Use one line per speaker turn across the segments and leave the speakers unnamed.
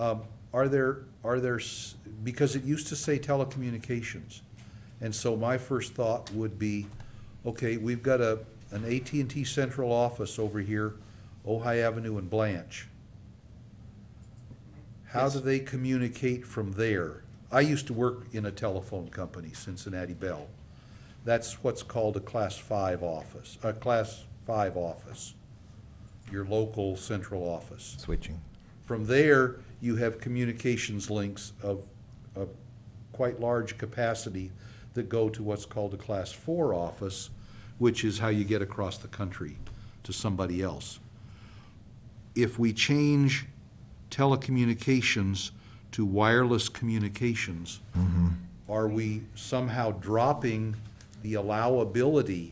Um, Are there, are there, s- because it used to say telecommunications. And so my first thought would be, okay, we've got a, an AT&T central office over here, Ojai Avenue and Blanche. How do they communicate from there? I used to work in a telephone company, Cincinnati Bell. That's what's called a class five office, a class five office, your local central office.
Switching.
From there, you have communications links of, of quite large capacity that go to what's called a Class Four office, which is how you get across the country to somebody else. If we change telecommunications to wireless communications, are we somehow dropping the allowability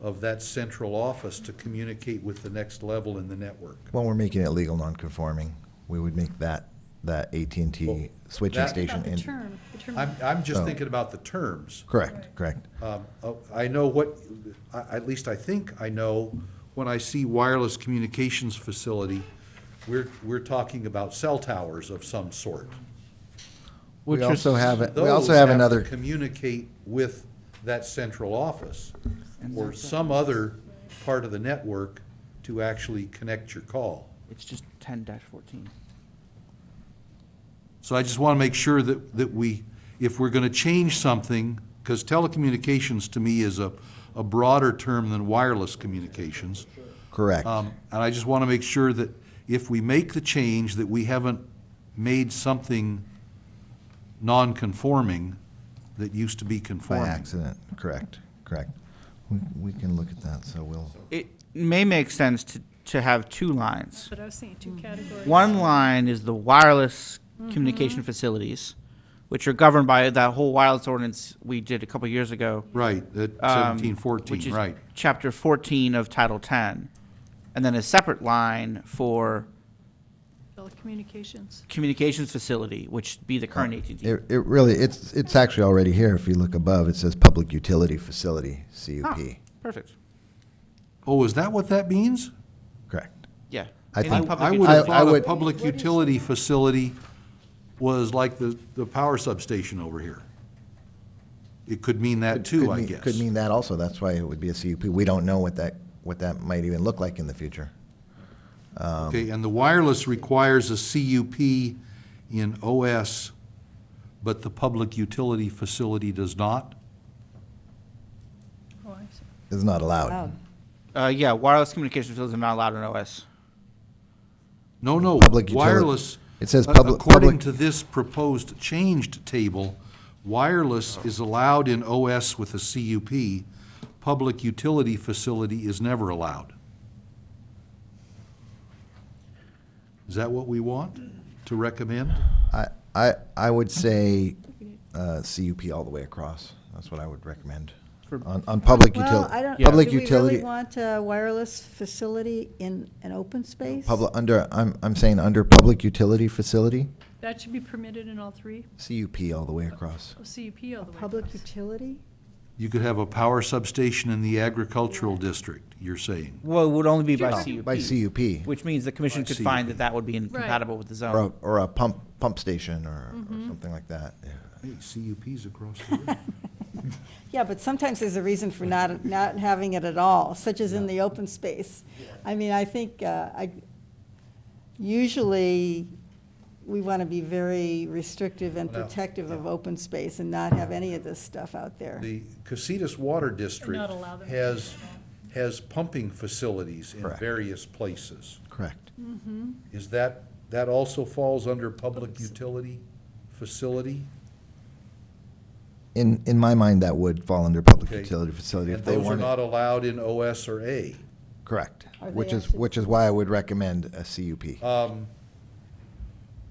of that central office to communicate with the next level in the network?
Well, we're making it legal non-conforming. We would make that, that
Well,
AT&T switching
that-
station.
About the
in-
term, the term.
I'm, I'm just
Oh.
thinking about the terms.
Correct, correct.
Um, oh, I know what, I- at least I think I know, when I see wireless communications facility, we're, we're talking about cell towers of some sort.
We
Which is-
also have, a- we also have
Those to
another,
Communicate with that central office or some other part of the network to actually connect your call.
It's just ten fourteen.
So I just want to make sure that, that we, if we're going to change something, because telecommunications to me is a, a broader term than wireless communications.
correct.
Um, And I just want to make sure that if we make the change, that we haven't made something non-conforming that used to be
By
conforming.
accident, correct, correct. We, we can look at that, so we'll,
It may make sense to, to have two lines.
But I was saying two categories.
One line is the wireless communication facilities, which are governed by that whole wireless ordinance we did a couple years ago.
Right, at
um,
seventeen
which
fourteen,
is
right.
Chapter fourteen of Title Ten, and then a separate line for
Telecommunications.
communications facility, which be the current ATD.
it, it really, it's, it's actually already here. If you look above, it says Public Utility Facility,
Ah,
CUP.
Perfect.
Oh, is that what that means?
Correct.
Yeah.
I
Any
think-
public
I would
utility-
have
I- I
thought a
would-
public utility facility was like the, the power substation over here. It could mean that too,
Could
I
mean-
guess.
Could mean that also. That's why it would be a CUP. We don't know what that, what that might even look like in the future.
Okay, and the wireless requires a CUP in OS, but the public utility facility does not?
Oh, I see.
It's not
Oh,
allowed.
Uh, yeah, wireless communication facilities are not allowed in OS.
No, no,
Public utili-
wireless.
It says
a-
public-
According
public-
to this proposed changed table, wireless is allowed in OS with a CUP. Public utility facility is never allowed. Is that what we want to recommend?
I, I, I would say uh, CUP all the way across. That's what I would recommend.
For-
On, on public
Well,
utility,
I don't,
public
do we really
utility,
want a wireless facility in an open space?
public, under, I'm, I'm saying under public utility facility,
That should be permitted in all three,
CUP all the way across.
Oh, CUP all the way.
Public
across.
utility?
You could have a power substation in the agricultural district, you're saying.
Well, it would only be by
No.
CUP.
By CUP,
Which means the commission
By
could
CUP.
find that that would be incompatible with the
or a,
zone.
or a pump, pump station or,
Mm-hmm.
or something like that. yeah.
Hey, CUP's across the room.
Yeah, but sometimes there's a reason for not, not having it at all, such as in the open space. I mean, I think, uh, I, usually, we want to be very restrictive and
Well,
protective of open space and not have any of this stuff out there.
The Casitas Water District
not allow them.
has, has pumping facilities in
Correct.
various places.
Correct.
Is that, that also falls under public utility facility?
In, in my mind, that would fall under public
Okay.
utility facility if
And
they
those are
want
not
it.
allowed in OS or A.
Correct,
Are
which
they
is,
actually-
which is why I would recommend a CUP.
Uh,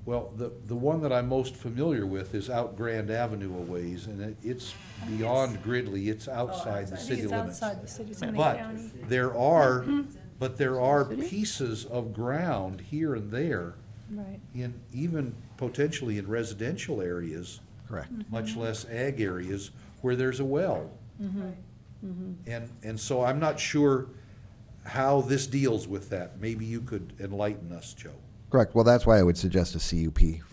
Well, the, the one that I'm most familiar with is out Grand Avenue a ways, and it- it's beyond Gridley, it's outside the
Oh, I
city
think it's
limits.
outside the city, it's in the
But
county. Mm-hmm.
there are, but there are pieces of ground here and there
Right.
in, even potentially in residential areas,
Correct.
Mm.
much less ag areas, where there's a well. And, and so I'm not sure how this deals with that. Maybe you could enlighten us, Joe.
Correct. Well, that's why I would suggest a CUP